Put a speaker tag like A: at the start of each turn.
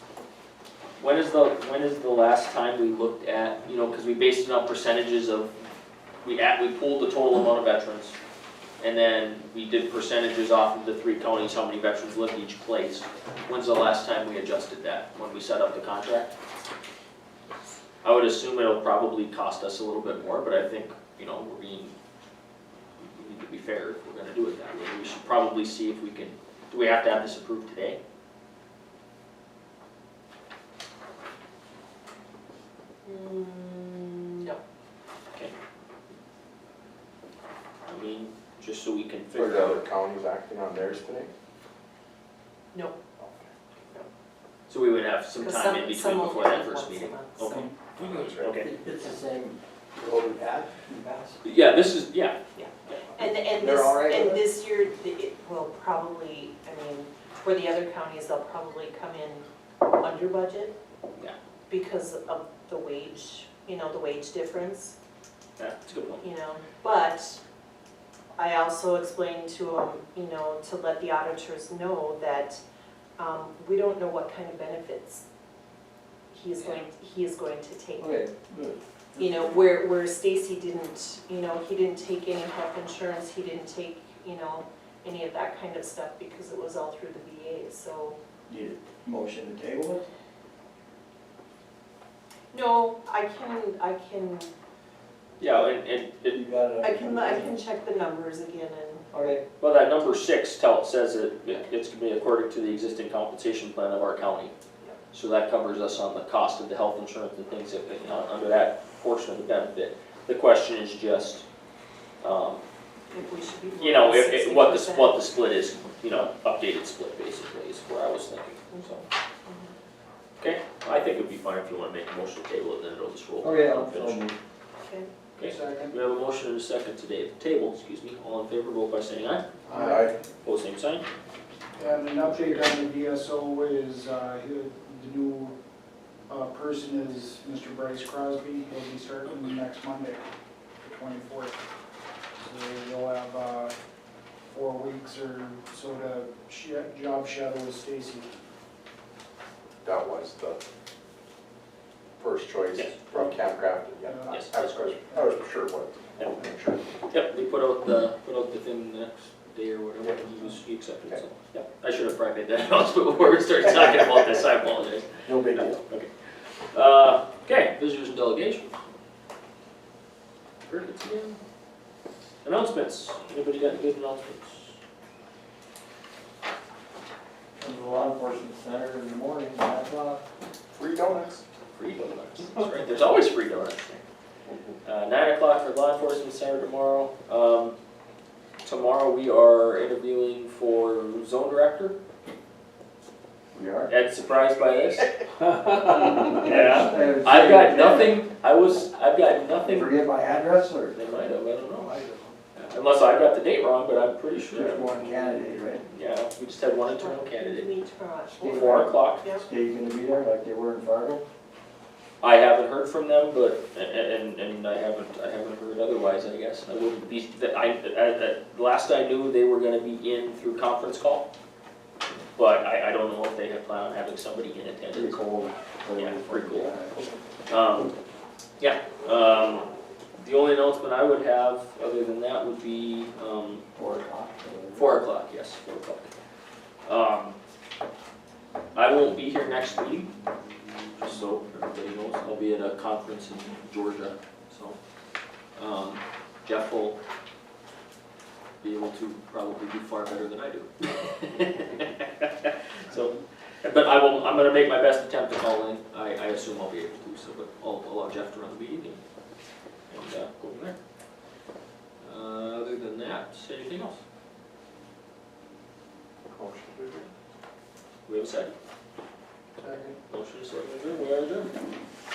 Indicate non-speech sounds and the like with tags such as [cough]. A: When is the, when is the last time we looked at, you know, because we based it on percentages of, we at, we pulled the total amount of veterans. And then we did percentages off of the three counties, how many veterans lived each place. When's the last time we adjusted that? When we set up the contract? I would assume it'll probably cost us a little bit more, but I think, you know, we're being, we need to be fair if we're gonna do it that way. We should probably see if we can, do we have to have this approved today?
B: Mm,
A: I mean, just so we can
C: For
A: figure
C: the
A: out.
C: other counties acting on theirs today?
B: No,
A: So we would have some
B: because
A: time in
B: some,
A: between
B: some will
A: before
B: get
A: that
B: it once
A: first
B: a
A: meeting.
B: month, so.
A: Okay.
C: That's right.
A: Okay.
D: It's the same road we had in the past.
A: Yeah, this is, yeah,
B: And, and
D: They're
B: this,
D: all right
B: and
D: with it?
B: this year, the- it will probably, I mean, for the other counties, they'll probably come in under budget.
A: Yeah.
B: Because of the wage, you know, the wage difference,
A: yeah, it's a good point.
B: you know, but I also explained to them, you know, to let the auditors know that, um, we don't know what kind of benefits he is going, he is going to take
D: Okay, good.
B: you know, where, where Stacy didn't, you know, he didn't take any health insurance, he didn't take, you know, any of that kind of stuff because it was all through the VA, so.
D: Need a motion to table it?
B: No, I can, I can,
A: Yeah, and, and, it
D: You got it?
B: I can, I can check the numbers again and,
D: Okay,
A: well, that number six tell, says that it- it's gonna be according to the existing compensation plan of our county.
B: Yep.
A: So that covers us on the cost of the health insurance and things that, you know, under that portion of the benefit. The question is just, um,
B: if we should be.
A: you know, if,
B: sixty
A: if, what the,
B: percent.
A: what the split is, you know, updated split basically is where I was thinking, so.
B: Mm-hmm.
A: Okay, I think it'd be fine if you wanna make a motion to table it, then it'll just roll.
D: okay, I'll,
A: Finish.
D: Oh, I'll move.
B: Okay.
A: Okay.
D: Second.
A: We have a motion and a second today at the table, excuse me, all in favor, vote by saying aye,
C: Aye.
A: pose same sign.
E: And an update on the DSO is, uh, he- the new, uh, person is Mr. Bryce Crosby, he'll be starting next Monday, the twenty-fourth. So you'll have, uh, four weeks or so to sha- job shadow with Stacy.
C: That was the first choice
A: Yes.
C: from Camp Crafton, yeah.
A: Yes.
C: I was question, I was sure what.
A: Yep.
C: Sure.
A: Yep, they put out the, put out the thing the next day or whatever, and he was, he accepted, so, yep. I should have probably made that [laughs] announcement before we started talking about this, I apologize.
C: No big deal.
A: Uh, okay, visitors and delegations. Heard it again. Announcements, anybody got any good announcements?
D: Come to the law enforcement center in the morning, nine o'clock.
C: Free donuts.
A: Free donuts, that's right, there's always free donuts Uh, nine o'clock for law enforcement center tomorrow. Um, tomorrow we are interviewing for zone director.
D: We are?
A: Ed surprised by this? Yeah. I've got nothing, I was, I've got nothing,
D: Forget my address or?
A: they might have, I don't know.
D: I don't.
A: Unless I got the date wrong, but I'm pretty
D: Just
A: sure.
D: one candidate, right?
A: Yeah, we just had one internal candidate.
B: Meet tomorrow at four.
A: Four o'clock.
B: Yeah.
D: Steve's gonna be there like they were in Fargo?
A: I haven't heard from them, but, and, and I haven't, I haven't heard otherwise, I guess. I wouldn't be, that I, at, at, last I knew, they were gonna be in through conference call. But I, I don't know if they have plan on having somebody in
D: Pretty
A: attendance.
D: cold.
A: Yeah, pretty cold. Um, yeah, um, the only announcement I would have, other than that, would be, um,
D: Four o'clock. or-
A: Four o'clock, yes, four o'clock. Um, I won't be here next meeting, just so everybody knows, I'll be at a conference in Georgia, so. Um, Jeff will be able to probably do [laughs] far better than I do. So, but I will, I'm gonna make my best attempt to call in, I, I assume I'll be able to, so, but I'll I'll allow Jeff to run the meeting and, and, uh, go from there. Uh, other than that, anything else?
C: Motion to adjourn.
A: We have a second?
E: Second.
A: Motion is second, we are adjourned.